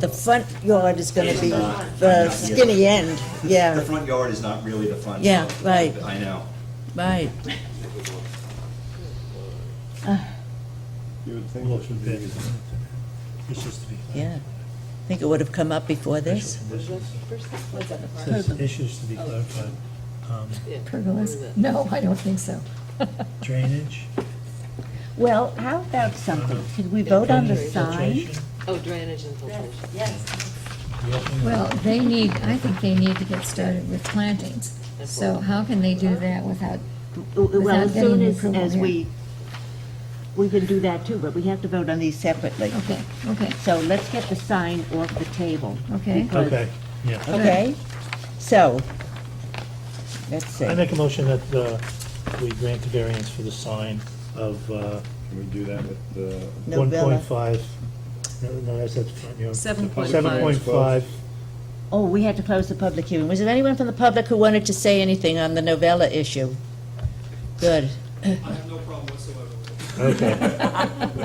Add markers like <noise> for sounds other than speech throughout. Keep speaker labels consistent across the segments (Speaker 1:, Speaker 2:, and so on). Speaker 1: The front yard is gonna be the skinny end,
Speaker 2: The
Speaker 1: yeah,
Speaker 2: front yard is not really the front.
Speaker 1: Yeah,
Speaker 2: yard.
Speaker 1: right.
Speaker 2: I know.
Speaker 1: right.
Speaker 3: You would think it should be.
Speaker 4: It's just to be.
Speaker 1: Yeah. Think it would have come up before this?
Speaker 4: Says issues to be clarified. Um,
Speaker 5: Pergolas? No, I don't think so.
Speaker 4: Drainage,
Speaker 6: Well, how about something? Did we vote on the sign?
Speaker 4: filtration,
Speaker 7: Oh, drainage and filtration.
Speaker 4: the opening of-
Speaker 5: Well, they need, I think they need to get started with plantings. So how can they do that without,
Speaker 6: Well, as
Speaker 5: Without getting
Speaker 6: soon as,
Speaker 5: approval,
Speaker 6: as
Speaker 5: yeah.
Speaker 6: we, we can do that too, but we have to vote on these separately.
Speaker 5: okay, okay,
Speaker 6: So let's get the sign off the table.
Speaker 5: Okay.
Speaker 6: because-
Speaker 4: Okay, yeah.
Speaker 1: Okay, so, let's
Speaker 4: I
Speaker 1: see.
Speaker 4: make a motion that uh, we grant the variance for the sign of uh,
Speaker 3: Can we do that with the?
Speaker 1: Novella.
Speaker 4: 1.5, no, no, that's, that's front yard.
Speaker 7: 7.5.
Speaker 4: 7.5,
Speaker 6: Oh, we had to close the public hearing.
Speaker 1: Was there anyone from the public who wanted to say anything on the novella issue? Good.
Speaker 8: I have no problem whatsoever with it.
Speaker 6: <laughs>
Speaker 4: okay.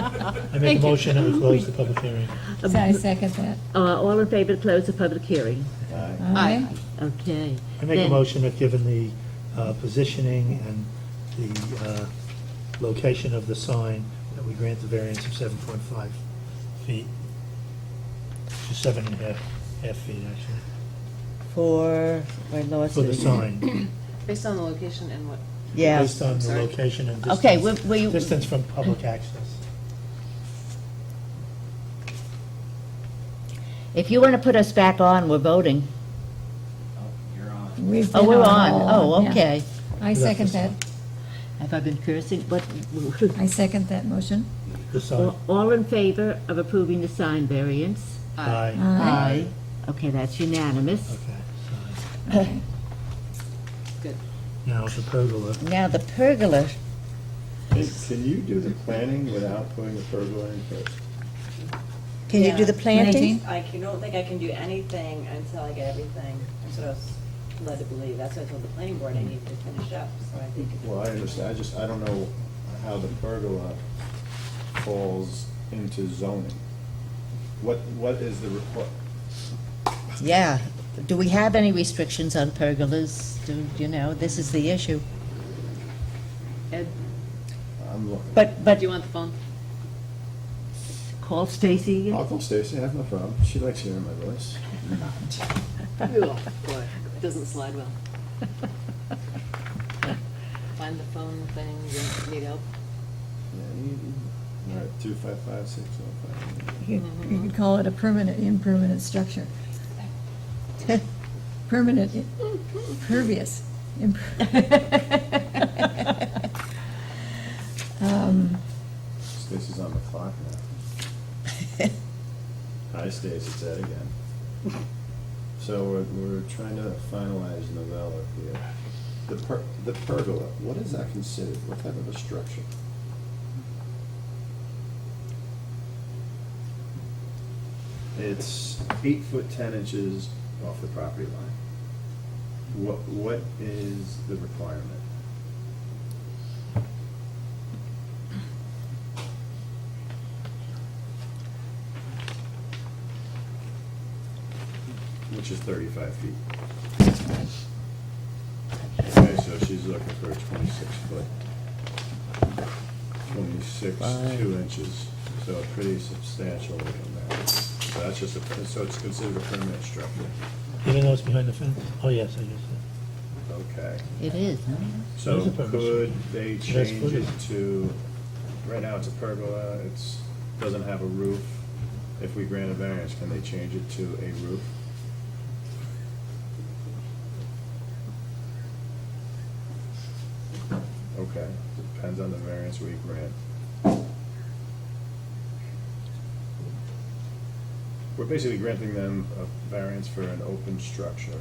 Speaker 4: I make a motion that we close the public hearing.
Speaker 5: so I second that.
Speaker 6: Uh, all in favor to close the public hearing?
Speaker 5: Aye.
Speaker 6: Okay.
Speaker 4: I make a
Speaker 6: Then-
Speaker 4: motion that given the uh, positioning and the uh, location of the sign, that we grant the variance of 7.5 feet to seven and a half, half feet, actually,
Speaker 1: For, I lost
Speaker 4: for the
Speaker 1: it.
Speaker 4: sign.
Speaker 7: Based on the location and what?
Speaker 1: Yeah,
Speaker 4: Based on the
Speaker 7: Sorry.
Speaker 4: location and
Speaker 1: Okay,
Speaker 4: distance,
Speaker 1: we- we-
Speaker 4: distance from public access.
Speaker 1: if you want to put us back on, we're voting.
Speaker 2: Oh, You're on.
Speaker 5: We've
Speaker 1: Oh,
Speaker 5: been
Speaker 1: we're
Speaker 5: on
Speaker 1: on,
Speaker 5: all
Speaker 1: oh,
Speaker 5: yeah.
Speaker 1: okay.
Speaker 5: I second that,
Speaker 6: Have I been cursing? What?
Speaker 5: I second that motion.
Speaker 4: The sign,
Speaker 6: All in favor of approving the sign variance?
Speaker 4: aye,
Speaker 5: Aye.
Speaker 6: Aye. Okay, that's unanimous.
Speaker 4: okay, sign.
Speaker 5: Okay.
Speaker 4: Now, the pergola,
Speaker 1: Now, the pergola,
Speaker 3: Can- Can you do the planning without putting the pergola in first?
Speaker 1: can you do
Speaker 9: Yeah.
Speaker 1: the planting?
Speaker 9: I can- don't think I can do anything until I get everything, I'm sort of led to believe, that's what I told the planning board, I need to finish up, so I think.
Speaker 3: Well, I understand, I just, I don't know how the pergola falls into zoning. What, what is the requ
Speaker 1: Yeah. Do we have any restrictions on pergolas? Do, you know, this is the issue.
Speaker 7: Ed,
Speaker 3: I'm looking.
Speaker 1: But,
Speaker 7: do
Speaker 1: but
Speaker 7: you want
Speaker 9: <laughs>
Speaker 7: the phone?
Speaker 6: Call Stacy.
Speaker 3: I'll call Stacy, I have no problem, she likes hearing my voice.
Speaker 7: Oh, boy, it doesn't slide well. Find the phone thing, you need help?
Speaker 3: All right, two five five six oh five.
Speaker 5: You could- you could call it a permanent, impermanent structure. Permanent, i- pervious. imper- <laughs> Um,
Speaker 3: Stacy's on the clock now. Hi, Stacy, it's Ed again. So we're, we're trying to finalize novella here. The per, the pergola, what is that considered? What type of a structure? It's eight foot ten inches off the property line. What, what is the requirement? Which is thirty-five feet. Okay, so she's looking for a twenty-six foot. Twenty-six, two inches, so a pretty substantial in there. So that's just a, so it's considered a permanent structure.
Speaker 4: even though it's behind the fence, oh, yes, I guess, so.
Speaker 3: Okay.
Speaker 1: it is, huh?
Speaker 3: So
Speaker 4: It is a permanent
Speaker 3: could they
Speaker 4: That's
Speaker 3: change
Speaker 4: good.
Speaker 3: it to, right now it's a pergola, it's, doesn't have a roof. If we grant a variance, can they change it to a roof? Okay, depends on the variance we grant. We're basically granting them a variance for an open structure.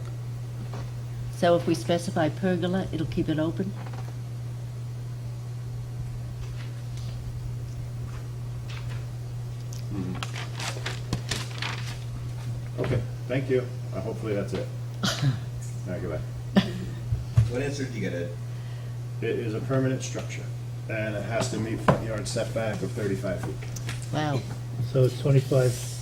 Speaker 6: So if we specify pergola, it'll keep it open?
Speaker 3: Okay, thank you. Uh, Hopefully that's it. All right, goodbye.
Speaker 2: What answer did you get, Ed?
Speaker 3: It is a permanent structure, and it has to meet front yard setback of thirty-five feet.
Speaker 1: Wow.
Speaker 4: So it's 25